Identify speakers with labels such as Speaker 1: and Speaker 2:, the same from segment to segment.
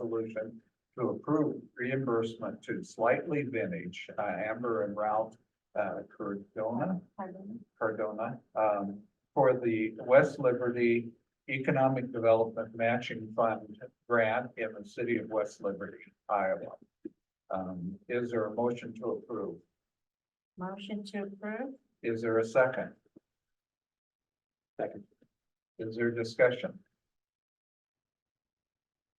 Speaker 1: resolution to approve reimbursement to Slightly Vintage, uh, Amber and Ralph, uh, Cardona, Cardona, um, for the West Liberty Economic Development Matching Fund grant in the city of West Liberty, Iowa. Um, is there a motion to approve?
Speaker 2: Motion to approve?
Speaker 1: Is there a second?
Speaker 3: Second.
Speaker 1: Is there discussion?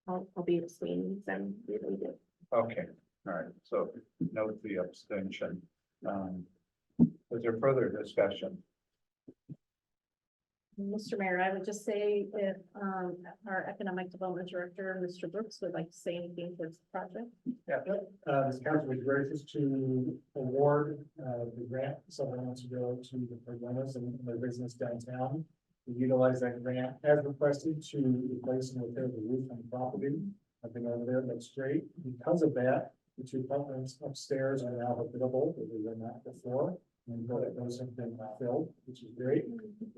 Speaker 2: I'll, I'll be abstaining, so I'm really good.
Speaker 1: Okay, all right, so note the abstention. Um, was there further discussion?
Speaker 2: Mr. Mayor, I would just say if, um, our economic development director, Mr. Brooks, would like to say anything towards the project.
Speaker 3: Uh, this council was gracious to award, uh, the grant several months ago to the Pergolas and their business downtown. We Utilize that grant as requested to replace and repair the roof on the property. I've been over there, it looks great. Because of that, the two apartments upstairs are now habitable, but they were not before. And those have been filled, which is great.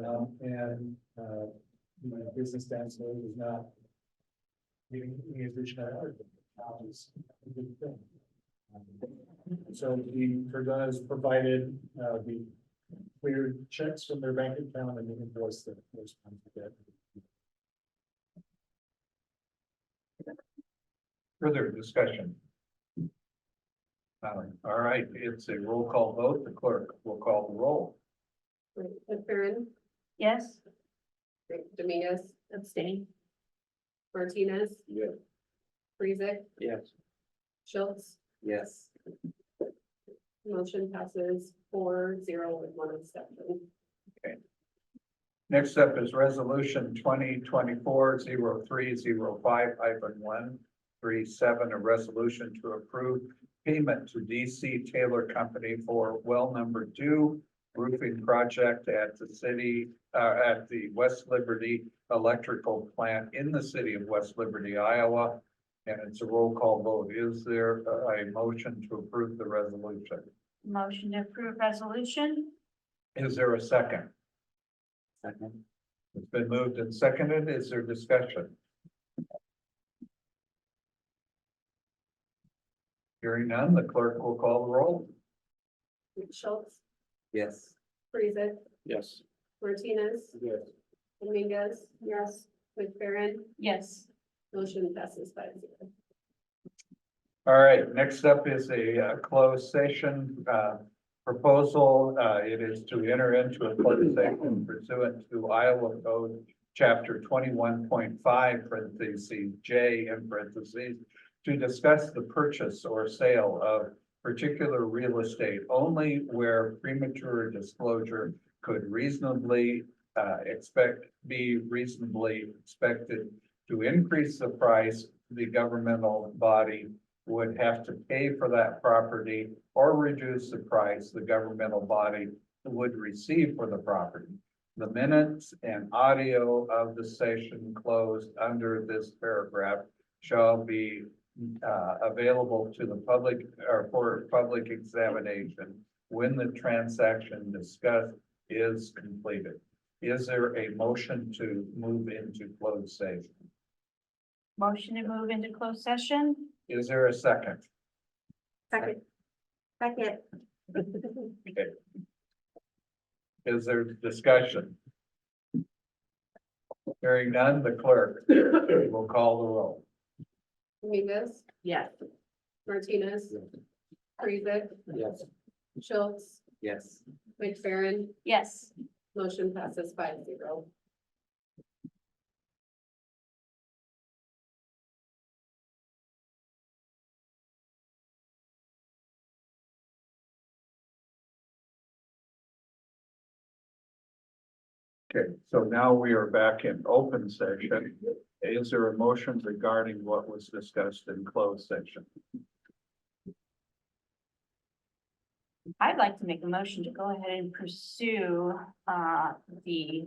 Speaker 3: Um, and, uh, you know, business downstairs is not. Giving me a vision of art, is a good thing. So the Cardona has provided, uh, the cleared checks from their bank account and the invoice that corresponds to that.
Speaker 1: Further discussion? Um, all right, it's a roll call vote. The clerk will call the roll.
Speaker 4: McFerrin,
Speaker 2: Yes.
Speaker 4: Dominguez,
Speaker 2: Abstain.
Speaker 4: Martinez.
Speaker 3: Yes.
Speaker 4: Friesick,
Speaker 3: Yes.
Speaker 4: Schultz,
Speaker 3: Yes.
Speaker 4: motion passes four zero with one exception.
Speaker 1: Next up is resolution twenty twenty-four zero three zero five hyphen one three seven, a resolution to approve payment to DC Taylor Company for well number two roofing project at the city, uh, at the West Liberty Electrical Plant in the city of West Liberty, Iowa. And it's a roll call vote. Is there a a motion to approve the resolution?
Speaker 2: Motion to approve resolution?
Speaker 1: Is there a second?
Speaker 3: Second.
Speaker 1: It's been moved and seconded. Is there discussion? Hearing none, the clerk will call the roll.
Speaker 4: Schultz,
Speaker 3: Yes.
Speaker 4: Friesick,
Speaker 3: Yes.
Speaker 4: Martinez,
Speaker 3: Yes.
Speaker 4: Dominguez. Yes. McFerrin,
Speaker 2: Yes.
Speaker 4: motion passes five zero.
Speaker 1: All right, next up is a uh, closed session uh, proposal. Uh, It is to enter into a closed session pursuant to Iowa Code, Chapter twenty-one point five, parentheses, J in parentheses, to discuss the purchase or sale of particular real estate only where premature disclosure could reasonably uh, expect, be reasonably expected to increase the price the governmental body would have to pay for that property or reduce the price the governmental body would receive for the property. The minutes and audio of the session closed under this paragraph shall be uh, available to the public or for public examination when the transaction discussed is completed. Is there a motion to move into closed session?
Speaker 2: Motion to move into closed session?
Speaker 1: Is there a second?
Speaker 2: Second. Second.
Speaker 1: Is there discussion? Hearing none, the clerk will call the roll.
Speaker 4: Dominguez,
Speaker 2: Yes.
Speaker 4: Martinez, Friesick,
Speaker 3: Yes.
Speaker 4: Schultz,
Speaker 3: Yes.
Speaker 4: McFerrin,
Speaker 2: Yes.
Speaker 4: motion passes five zero.
Speaker 1: Okay, so now we are back in open session. Is there a motion regarding what was discussed in closed session?
Speaker 5: I'd like to make a motion to go ahead and pursue uh the.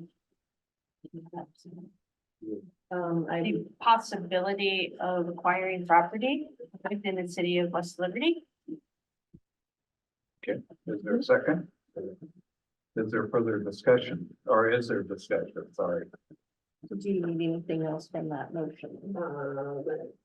Speaker 2: Um, I,
Speaker 5: The possibility of acquiring property within the city of West Liberty.
Speaker 1: Is there a second? Is there further discussion or is there discussion? Sorry.
Speaker 2: do you need anything else from that motion?
Speaker 4: Uh, but